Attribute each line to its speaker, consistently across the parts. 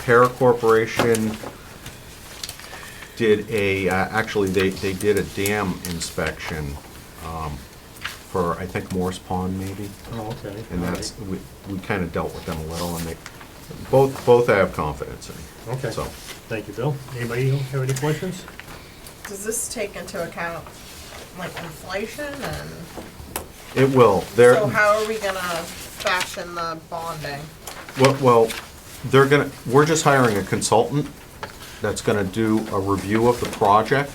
Speaker 1: Terra Corporation did a, uh, actually, they, they did a dam inspection um, for, I think, Morse Pond maybe.
Speaker 2: Oh, okay.
Speaker 1: And that's, we, we kind of dealt with them a little and they, both, both I have confidence in.
Speaker 2: Okay.
Speaker 1: So,
Speaker 2: Thank you, Bill. Anybody have any questions?
Speaker 3: Does this take into account like inflation and,
Speaker 1: it will. They're-
Speaker 3: so how are we gonna fashion the bonding?
Speaker 1: Well, well, they're gonna, we're just hiring a consultant that's gonna do a review of the project.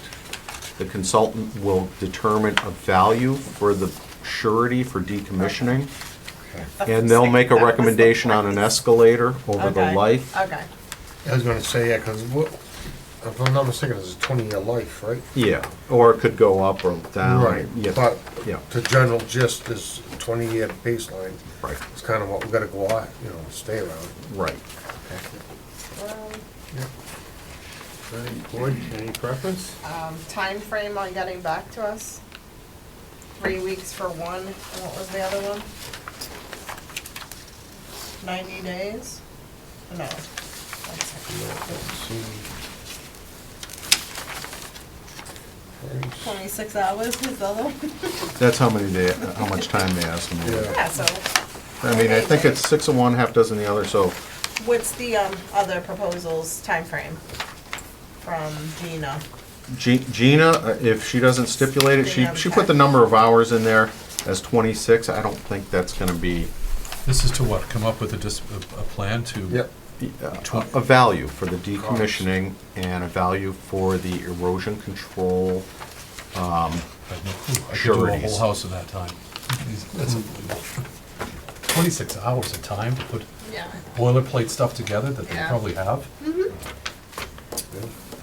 Speaker 1: The consultant will determine a value for the surety for decommissioning. And they'll make a
Speaker 3: That was the
Speaker 1: recommendation on an
Speaker 3: point.
Speaker 1: escalator over the
Speaker 3: Okay,
Speaker 1: life.
Speaker 3: Okay,
Speaker 4: I was gonna say, yeah, cause what, if I'm not mistaken, it's a twenty-year life, right?
Speaker 1: Yeah, or it could go up or down. Yeah,
Speaker 4: But
Speaker 1: Yeah,
Speaker 4: the general gist is twenty-year baseline.
Speaker 1: right,
Speaker 4: It's kinda what we gotta go on, you know, stay around.
Speaker 1: right.
Speaker 3: well,
Speaker 2: Board, any preference?
Speaker 3: um, timeframe on getting back to us? Three weeks for one, and what was the other one? Ninety days? No. Twenty-six hours is the other one?
Speaker 1: That's how many they, how much time they ask them. to-
Speaker 4: Yeah,
Speaker 3: Yeah, so
Speaker 1: I mean, I think it's six of one, half dozen of the other, so
Speaker 3: What's the um, other proposals timeframe from Gina?
Speaker 1: Ge- Gina, uh, if she doesn't stipulate it, she,
Speaker 3: Yeah,
Speaker 1: she
Speaker 3: okay.
Speaker 1: put the number of hours in there as twenty-six, I don't think that's gonna be
Speaker 5: This is to what, come up with a dis, a, a plan to?
Speaker 4: yep,
Speaker 1: uh, a a value for the decommissioning and a value for the erosion control.
Speaker 5: I have no clue. I could do a
Speaker 1: Sureties.
Speaker 5: whole house in that time. Jeez, That's unbelievable. Twenty-six hours of time to put
Speaker 3: Yeah.
Speaker 5: boilerplate stuff together that they
Speaker 3: Yeah.
Speaker 5: probably have?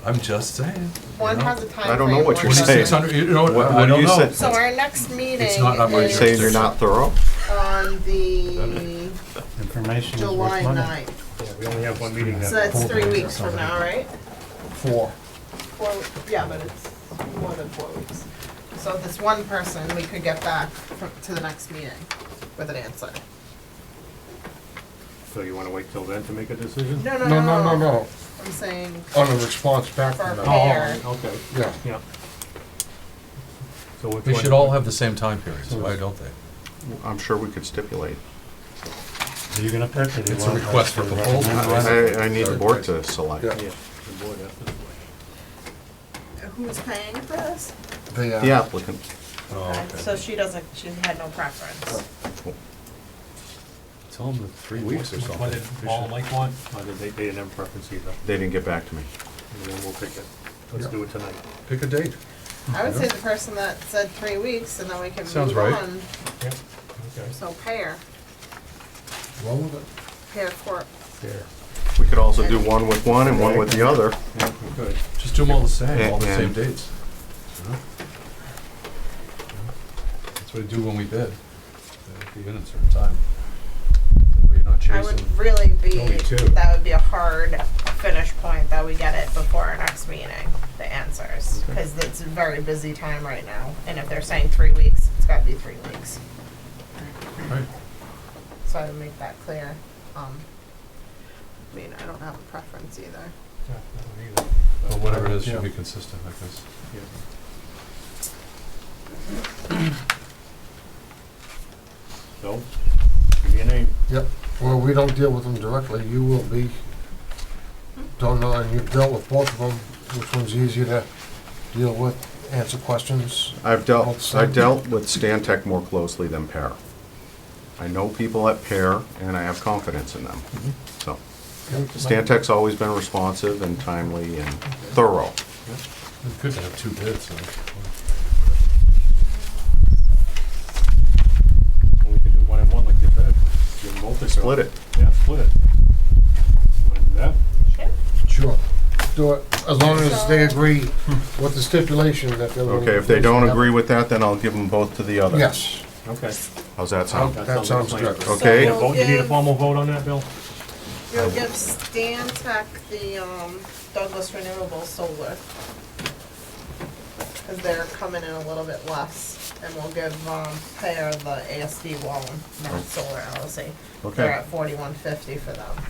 Speaker 5: I'm just saying.
Speaker 3: One has a timeframe.
Speaker 1: I don't know what
Speaker 3: one
Speaker 1: you're saying.
Speaker 5: Twenty-six hundred, you know,
Speaker 1: What-
Speaker 5: I
Speaker 1: what do
Speaker 5: don't
Speaker 1: you
Speaker 5: know.
Speaker 1: say?
Speaker 3: So our next meeting
Speaker 5: It's not up
Speaker 1: Are you
Speaker 5: Yeah.
Speaker 1: saying
Speaker 3: is
Speaker 1: you're not thorough?
Speaker 3: on the
Speaker 2: Information is
Speaker 3: July
Speaker 2: worth money.
Speaker 3: 9th.
Speaker 2: Yeah, we only have one meeting
Speaker 3: So
Speaker 2: that.
Speaker 3: that's three weeks from now, right?
Speaker 4: four.
Speaker 3: Four, yeah, but it's more than four weeks. So if it's one person, we could get back fr- to the next meeting with an answer.
Speaker 2: So you want to wait till then to make a decision?
Speaker 3: No, no,
Speaker 4: No, no, no, no,
Speaker 3: I'm saying
Speaker 4: on a response back
Speaker 3: for
Speaker 4: from
Speaker 2: Oh,
Speaker 4: them,
Speaker 2: all
Speaker 3: fair.
Speaker 2: right, okay,
Speaker 4: yeah.
Speaker 2: yeah. So which
Speaker 5: They
Speaker 2: one-
Speaker 5: should all have the same time periods, why don't they?
Speaker 1: I'm sure we could stipulate.
Speaker 2: Are you gonna pick or do you
Speaker 5: It's a
Speaker 2: want us
Speaker 5: request for
Speaker 2: to
Speaker 5: proposal.
Speaker 2: recommend?
Speaker 1: I, I- I need the board to select.
Speaker 4: Yeah.
Speaker 2: Yeah, the board has to-
Speaker 3: Who's paying for this?
Speaker 4: They, uh,
Speaker 1: The applicant,
Speaker 5: Oh,
Speaker 3: Okay, So
Speaker 5: okay.
Speaker 3: she doesn't, she had no preference.
Speaker 2: Tell them the three
Speaker 5: Weeks
Speaker 2: weeks or
Speaker 5: or
Speaker 2: something.
Speaker 5: something. All like one?
Speaker 2: Or did they, they didn't have preference either,
Speaker 1: they didn't get back to me.
Speaker 2: and then we'll pick it. Let's
Speaker 4: Yeah.
Speaker 2: do it tonight.
Speaker 4: Pick a date.
Speaker 3: I would say the person that said three weeks and then we can
Speaker 5: Sounds
Speaker 3: move
Speaker 5: right.
Speaker 3: on.
Speaker 2: Yeah, okay.
Speaker 3: So pair,
Speaker 4: Well, with it.
Speaker 3: pair court.
Speaker 2: There.
Speaker 1: We could also do one with one and one with the other.
Speaker 2: Yeah, good.
Speaker 5: Just do them all the same, all the
Speaker 1: Yeah.
Speaker 5: same dates. That's what we do when we bid. uh, They Be in at a certain time. That way you're not
Speaker 3: I
Speaker 5: chasing.
Speaker 3: would really be,
Speaker 5: Only two.
Speaker 3: that would be a hard finish point that we get it before our next meeting, the answers. Cause it's a very busy time right now. And if they're saying three weeks, it's gotta be three weeks.
Speaker 5: Right.
Speaker 3: So I would make that clear. Um, I mean, I don't have a preference either.
Speaker 2: Yeah, I don't either.
Speaker 5: Well, whatever it is,
Speaker 2: Yeah.
Speaker 5: should be consistent, I guess.
Speaker 2: Yeah. So, give me a name.
Speaker 4: Yep, well, we don't deal with them directly, you will be, don't know, and you've dealt with both of them, which one's easier to deal with, answer questions.
Speaker 1: I've dealt, I dealt with Stantec more closely than Pear. I know people at Pear, and I have confidence in them, so. Stantec's always been responsive and timely and thorough.
Speaker 5: We could have two bids, so.
Speaker 2: We could do one and one like you said. Do them both or so.
Speaker 1: Split it.
Speaker 2: Yeah, split it. Wanna do that?
Speaker 4: Sure. Do it, as long as they agree with the stipulation that they're.
Speaker 1: Okay, if they don't agree with that, then I'll give them both to the other.
Speaker 4: Yes,
Speaker 2: Okay.
Speaker 1: How's that sound?
Speaker 4: that sounds
Speaker 2: like a
Speaker 4: good.
Speaker 2: plan.
Speaker 1: Okay.
Speaker 2: You need a vote- You need a formal vote on that, Bill?
Speaker 3: You'll give Stan Tech the um, Douglas Renewable Solar. Cause they're coming in a little bit less, and we'll give, um, Pear the ASD Wallen, Mass Solar LLC. They're
Speaker 1: Okay,
Speaker 3: at forty-one fifty for them.